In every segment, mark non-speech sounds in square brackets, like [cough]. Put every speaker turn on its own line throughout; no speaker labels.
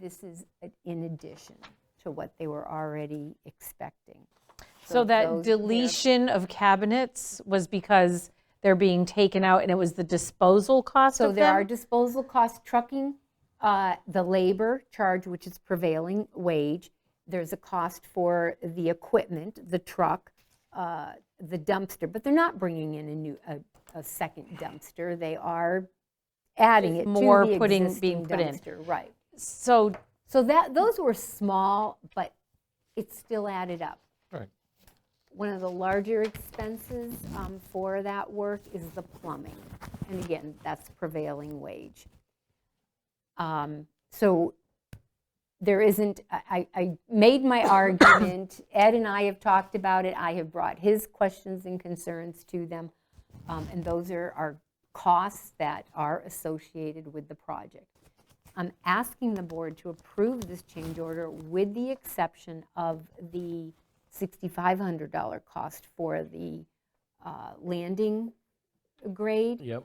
this is a- in addition to what they were already expecting.
So that
those- they're-
deletion of cabinets was because they're being taken out and it was the disposal cost
So
of
there are
them?
disposal costs, trucking, uh, the labor charge, which is prevailing wage. There's a cost for the equipment, the truck, uh, the dumpster, but they're not bringing in a new, a- a second dumpster. They are adding it to
more
the
putting-
existing
being put in.
dumpster. Right.
So,
So that, those were small, but it still added up.
Right.
One of the larger expenses um, for that work is the plumbing. And again, that's prevailing wage. Um, So there isn't, I- I, I made my argument, Ed and I have talked about it, I have brought his questions and concerns to them, um, and those are, are costs that are associated with the project. I'm asking the board to approve this change order with the exception of the $6,500 cost for the uh, landing grade.
Yep.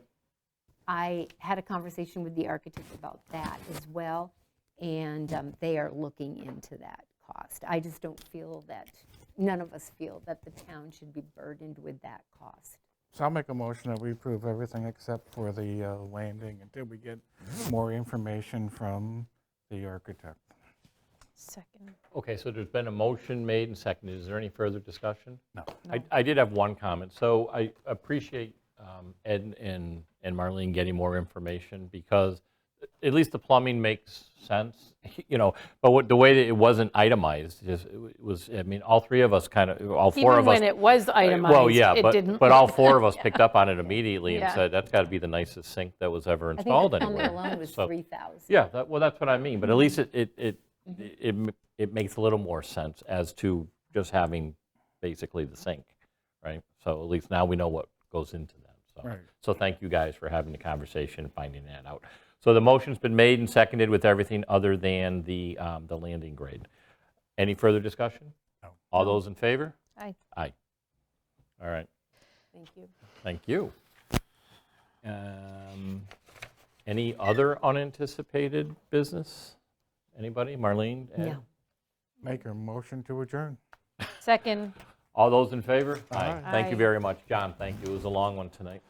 I had a conversation with the architect about that as well, and um, they are looking into that cost. I just don't feel that, none of us feel that the town should be burdened with that cost.
So I'll make a motion that we approve everything except for the uh, landing until we get more information from the architect.
second.
Okay, so there's been a motion made and seconded. Is there any further discussion?
No.
I- I did have one comment. So I appreciate um, Ed and and Marlene getting more information because at least the plumbing makes sense, [laughs] you know, but what, the way that it wasn't itemized, just, it was, I mean, all three of us kind of, all four
Even
of us.
when it was
Well,
itemized,
yeah,
it
but,
didn't.
but all four
[laughs]
of us picked up on it immediately and
Yeah.
said, that's got to be the nicest sink that was ever
I think
installed
the plumbing
anywhere.
alone was
So-
3,000.
yeah, that, well, that's what I mean, but at least it, it, it, it, m- it makes a little more sense as to just having basically the sink, right? So at least now we know what goes into them, so.
Right.
So thank you guys for having the conversation and finding that out. So the motion's been made and seconded with everything other than the, um, the landing grade. Any further discussion?
No.
All those in favor?
Aye.
Aye. All right.
Thank you.
Thank you. Um, Any other unanticipated business? Anybody? Marlene? Ed?
No.
Make a motion to adjourn.
Second.
All those in favor?
Aye.
Thank
Aye.
you very much. John, thank you. It was a long one tonight.